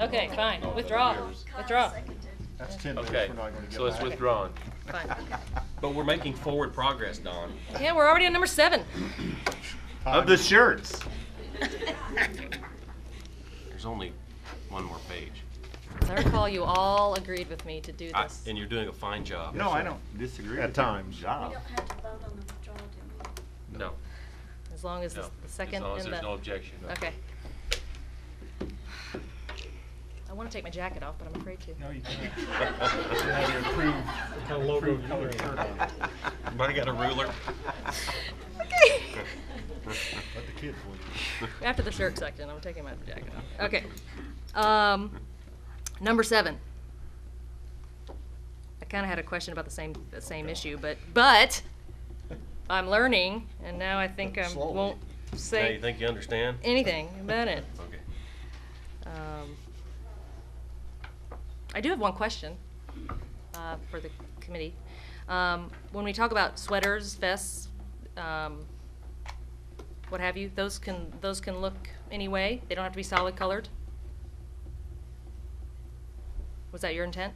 Okay, fine, No, withdraw, no, yours. withdraw. That's ten minutes Okay, we're not gonna get so it's back. withdrawn. Fine. But we're making forward progress, Don. Yeah, we're already on number seven. Of the shirts. There's only one more page. As I recall, you all agreed with me to do I- this. And you're doing a fine job. No, I don't disagree. At times. Job. No, As long as no. the the second As long as and there's no the, objection. okay. I wanna take my jacket off, but I'm afraid to. No, you can't. Everybody got a ruler? Let the kids win. After the shirt section, I'm taking my jacket off. Okay. Um, number seven. I kind of had a question about the same the same issue, but but I'm learning, and now I think I Slowly. won't Now say you think you understand? anything about it. Okay. Um, I do have one question uh, for the committee. Um, When we talk about sweaters, vests, um, what have you, those can, those can look any way? They don't have to be solid colored? Was that your intent?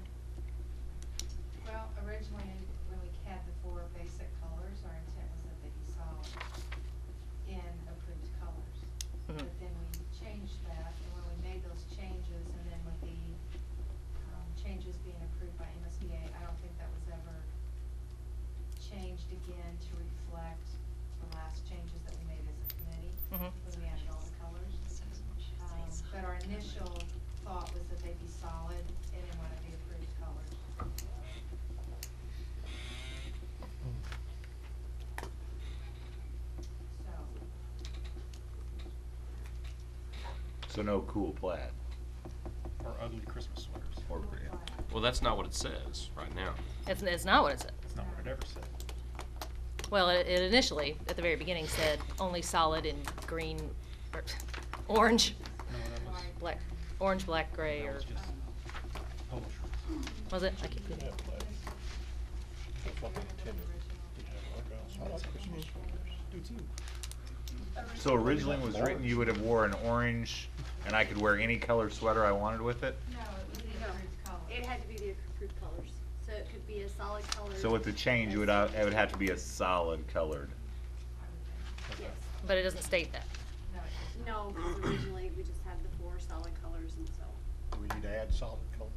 Well, originally, when we had the four basic colors, our intent was that they be solid in approved colors. Mhm. But then we changed that, and when we made those changes, and then with the, um, changes being approved by MSBA, I don't think that was ever changed again to reflect the last changes that we made as a committee, Mhm. when we added all the colors. Um, but our initial thought was that they'd be solid and in one of the approved colors. So, So no cool plaid Or ugly Christmas sweaters. or red. Well, that's not what it says right now. It's, it's not what it said. That's not what it ever said. Well, it it initially, at the very beginning, said only solid in green, or orange, No, that was, black, orange, black, gray, that or, was just polo shirts. was it? I can't- So originally when it was written, you would have wore an orange and I could wear any color sweater I wanted with it. no, it was the No. approved colors. It had to be the approved colors, so it could be a solid color. So with the change, it would, uh, it would have to be a solid colored. Yes. But it doesn't state that. No, it was- No, 'cause originally we just had the four solid colors and so. Do we need to add solid colors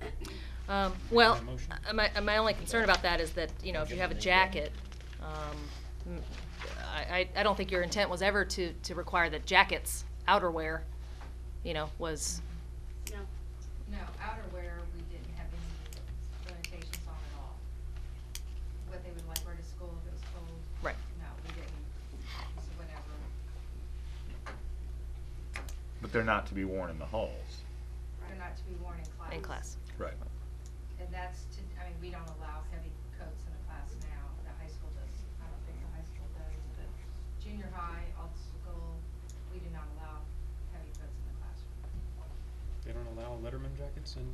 in? Um, well, motion? uh, my, uh, my only concern about that is that, you know, if you have a jacket, um, m- I, I, I don't think your intent was ever to, to require that jackets, outerwear, you know, was, No, no, outerwear, we didn't have any limitations on at all. What they would like wear to school if it was cold. Right. No, we didn't, so whatever. But they're not to be worn in the halls. They're not to be worn in class. in class. Right. And that's to, I mean, we don't allow heavy coats in the class now, the high school does, I don't think the high school does, but junior high, old school, we do not allow heavy coats in the classroom. They don't allow Letterman jackets in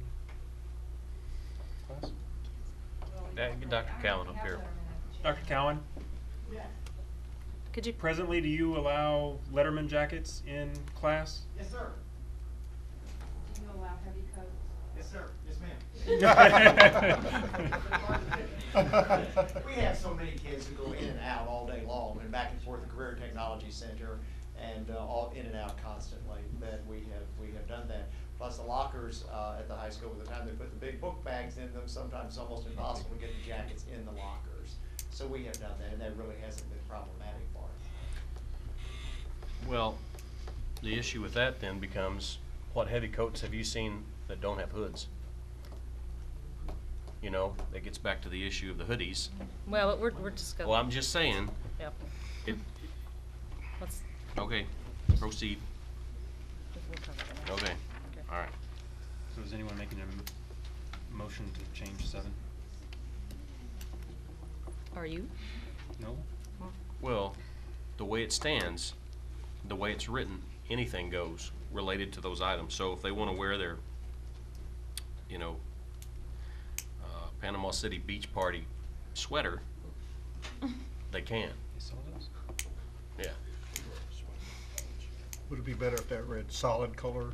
class? Well, we Yeah, don't get really- Dr. I don't Callen think up we here. have Letterman at the Dr. junior Cowan, Could you, presently, do you allow Letterman jackets in class? Yes, sir. high. Do you allow heavy coats? Yes, sir. Yes, ma'am. We have so many kids who go in and out all day long and back and forth the Career Technology Center and uh, all in and out constantly that we have, we have done that. Plus the lockers uh, at the high school, by the time they put the big book bags in them, sometimes it's almost impossible to get the jackets in the lockers. So we have done that and that really hasn't been problematic for us. Well, the issue with that then becomes, what heavy coats have you seen that don't have hoods? You know, that gets back to the issue of the hoodies. well, we're, we're just Well, gonna, I'm just saying, yeah, if, let's, okay, proceed, we'll cover that. okay, all right. So is anyone making a m- motion to change seven? Are you? No? Well, the way it stands, the way it's written, anything goes related to those items. So if they want to wear their, you know, uh, Panama City Beach Party sweater, they can, They sell those? yeah. Would it be better if that read solid color